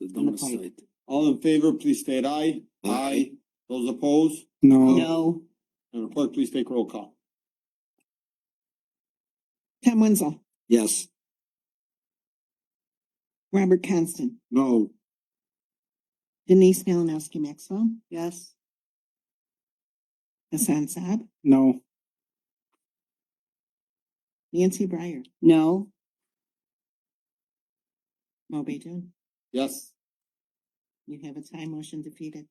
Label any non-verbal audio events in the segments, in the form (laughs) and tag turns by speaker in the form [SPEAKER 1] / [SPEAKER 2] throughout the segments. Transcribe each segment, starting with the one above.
[SPEAKER 1] listed
[SPEAKER 2] on the site. All in favor, please state aye.
[SPEAKER 1] Aye.
[SPEAKER 2] Those opposed?
[SPEAKER 3] No.
[SPEAKER 4] No.
[SPEAKER 2] Madam Clerk, please take roll call.
[SPEAKER 4] Tom Wenzel,
[SPEAKER 1] Yes.
[SPEAKER 4] Robert Constant,
[SPEAKER 2] No.
[SPEAKER 4] Denise Malinowski Maxwell,
[SPEAKER 3] Yes.
[SPEAKER 4] Hassan Saab,
[SPEAKER 3] No.
[SPEAKER 4] Nancy Breyer,
[SPEAKER 3] No.
[SPEAKER 4] Mo Beidun.
[SPEAKER 2] Yes.
[SPEAKER 4] You have a tie motion defeated.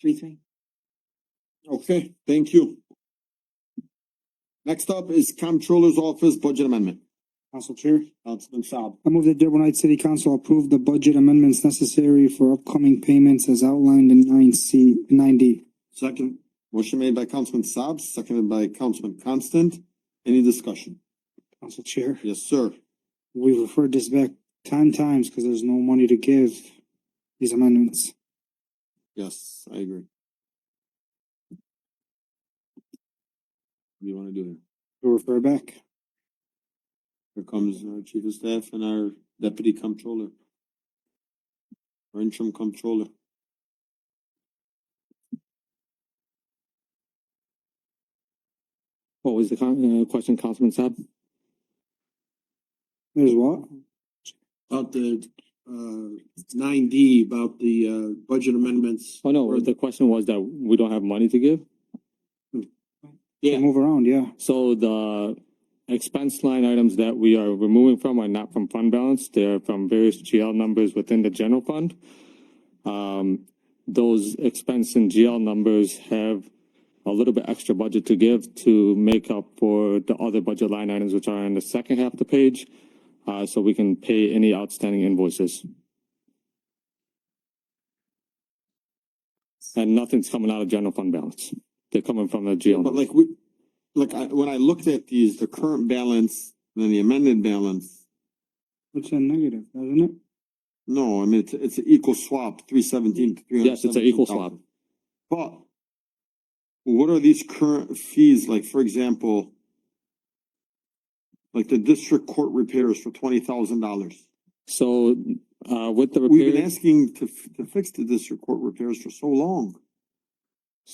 [SPEAKER 4] Three, three.
[SPEAKER 2] Okay, thank you. Next up is Comptroller's Office Budget Amendment.
[SPEAKER 3] Council Chair,
[SPEAKER 2] Councilman Saab.
[SPEAKER 3] I move that Dearborn Heights City Council approve the budget amendments necessary for upcoming payments as outlined in nine C, nine D.
[SPEAKER 2] Second. Motion made by Councilman Saab, seconded by Councilman Constant. Any discussion?
[SPEAKER 3] Council Chair,
[SPEAKER 2] Yes, sir.
[SPEAKER 3] we've referred this back ten times because there's no money to give these amendments.
[SPEAKER 2] Yes, I agree. What do you wanna do here?
[SPEAKER 3] We refer back.
[SPEAKER 2] Here comes our chief of staff and our deputy comptroller. Our interim comptroller.
[SPEAKER 5] What was the con- uh, question, Councilman Saab?
[SPEAKER 3] There's what?
[SPEAKER 6] About the uh nine D, about the uh budget amendments.
[SPEAKER 5] Oh, no, the question was that we don't have money to give.
[SPEAKER 3] They Move around, yeah.
[SPEAKER 5] So the expense line items that we are removing from are not from fund balance. They are from various GL numbers within the general fund. Um, those expense and GL numbers have a little bit extra budget to give to make up for the other budget line items, which are in the second half of the page. Uh, so we can pay any outstanding invoices. And nothing's coming out of general fund balance. They're coming from the GL.
[SPEAKER 2] But like we, like I, when I looked at these, the current balance, and then the amended balance.
[SPEAKER 3] It's a negative, doesn't it?
[SPEAKER 2] No, I mean, it's, it's an equal swap, three seventeen, three hundred.
[SPEAKER 5] Yes, it's an equal swap.
[SPEAKER 2] But what are these current fees, like, for example, like the district court repairs for twenty thousand dollars?
[SPEAKER 5] So, uh, with the
[SPEAKER 2] We've been
[SPEAKER 5] repairs.
[SPEAKER 2] asking to, f- to fix the district court repairs for so long.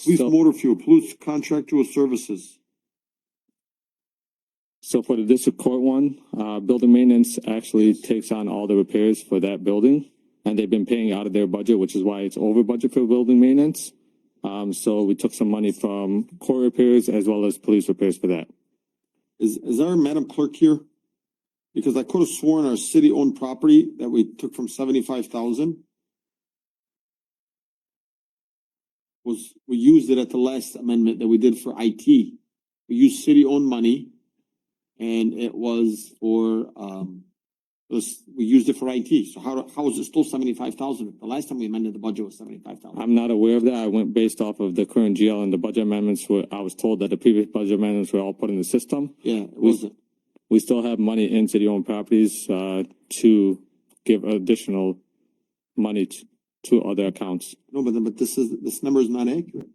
[SPEAKER 2] Police
[SPEAKER 5] so-
[SPEAKER 2] motor fuel, police contractual services.
[SPEAKER 5] So for the district court one, uh, building maintenance actually takes on all the repairs for that building. And they've been paying out of their budget, which is why it's over budget for building maintenance. Um, so we took some money from court repairs as well as police repairs for that.
[SPEAKER 2] Is, is our Madam Clerk here? Because I could have sworn our city-owned property that we took from seventy-five thousand was, we used it at the last amendment that we did for IT. We used city-owned money and it was for, um, it was, we used it for IT. So how, how is it still seventy-five thousand? The last time we amended the budget was seventy-five thousand.
[SPEAKER 5] I'm not aware of that. I went based off of the current GL and the budget amendments were, I was told that the previous budget amendments were all put in the system.
[SPEAKER 2] Yeah, it wasn't.
[SPEAKER 5] We still have money in city-owned properties, uh, to give additional money to, to other accounts.
[SPEAKER 2] No, but, but this is, this number is not accurate.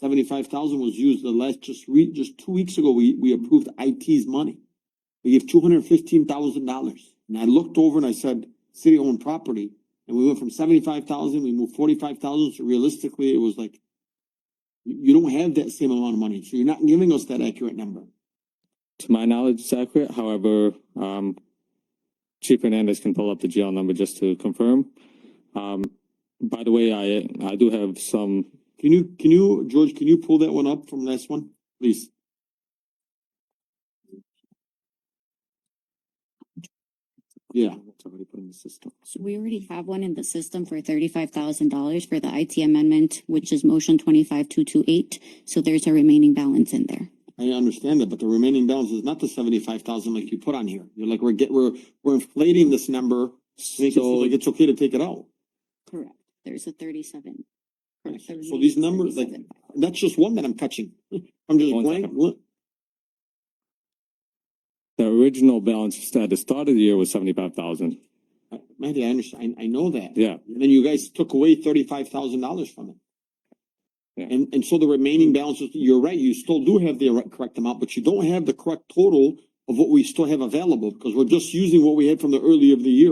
[SPEAKER 2] Seventy-five thousand was used the last, just re, just two weeks ago, we, we approved IT's money. We gave two hundred and fifteen thousand dollars, and I looked over and I said, city-owned property, and we went from seventy-five thousand, we moved forty-five thousand, so realistically, it was like, you, you don't have that same amount of money, so you're not giving us that accurate number.
[SPEAKER 5] To my knowledge, it's accurate. However, um, Chief Hernandez can pull up the GL number just to confirm. Um, by the way, I, I do have some,
[SPEAKER 2] Can you, can you, George, can you pull that one up from last one, please? Yeah.
[SPEAKER 7] So we already have one in the system for thirty-five thousand dollars for the IT amendment, which is motion twenty-five two two eight. So there's a remaining balance in there.
[SPEAKER 2] I understand that, but the remaining balance is not the seventy-five thousand like you put on here. You're like, we're get, we're, we're inflating this number. Make it seem
[SPEAKER 5] so,
[SPEAKER 2] like it's okay to take it out.
[SPEAKER 7] Correct. There's a thirty-seven. Correct, the
[SPEAKER 2] So these
[SPEAKER 7] remaining
[SPEAKER 2] numbers, like,
[SPEAKER 7] 37.
[SPEAKER 2] that's just one that I'm catching. (laughs) I'm just
[SPEAKER 5] One
[SPEAKER 2] blank,
[SPEAKER 5] second.
[SPEAKER 2] look.
[SPEAKER 5] the original balance at the start of the year was seventy-five thousand.
[SPEAKER 2] Uh, Mandy, I understand, I, I know that.
[SPEAKER 5] Yeah,
[SPEAKER 2] And then you guys took away thirty-five thousand dollars from it.
[SPEAKER 5] Yeah.
[SPEAKER 2] And, and so the remaining balances, you're right, you still do have the right- correct amount, but you don't have the correct total of what we still have available, because we're just using what we had from the earlier of the year.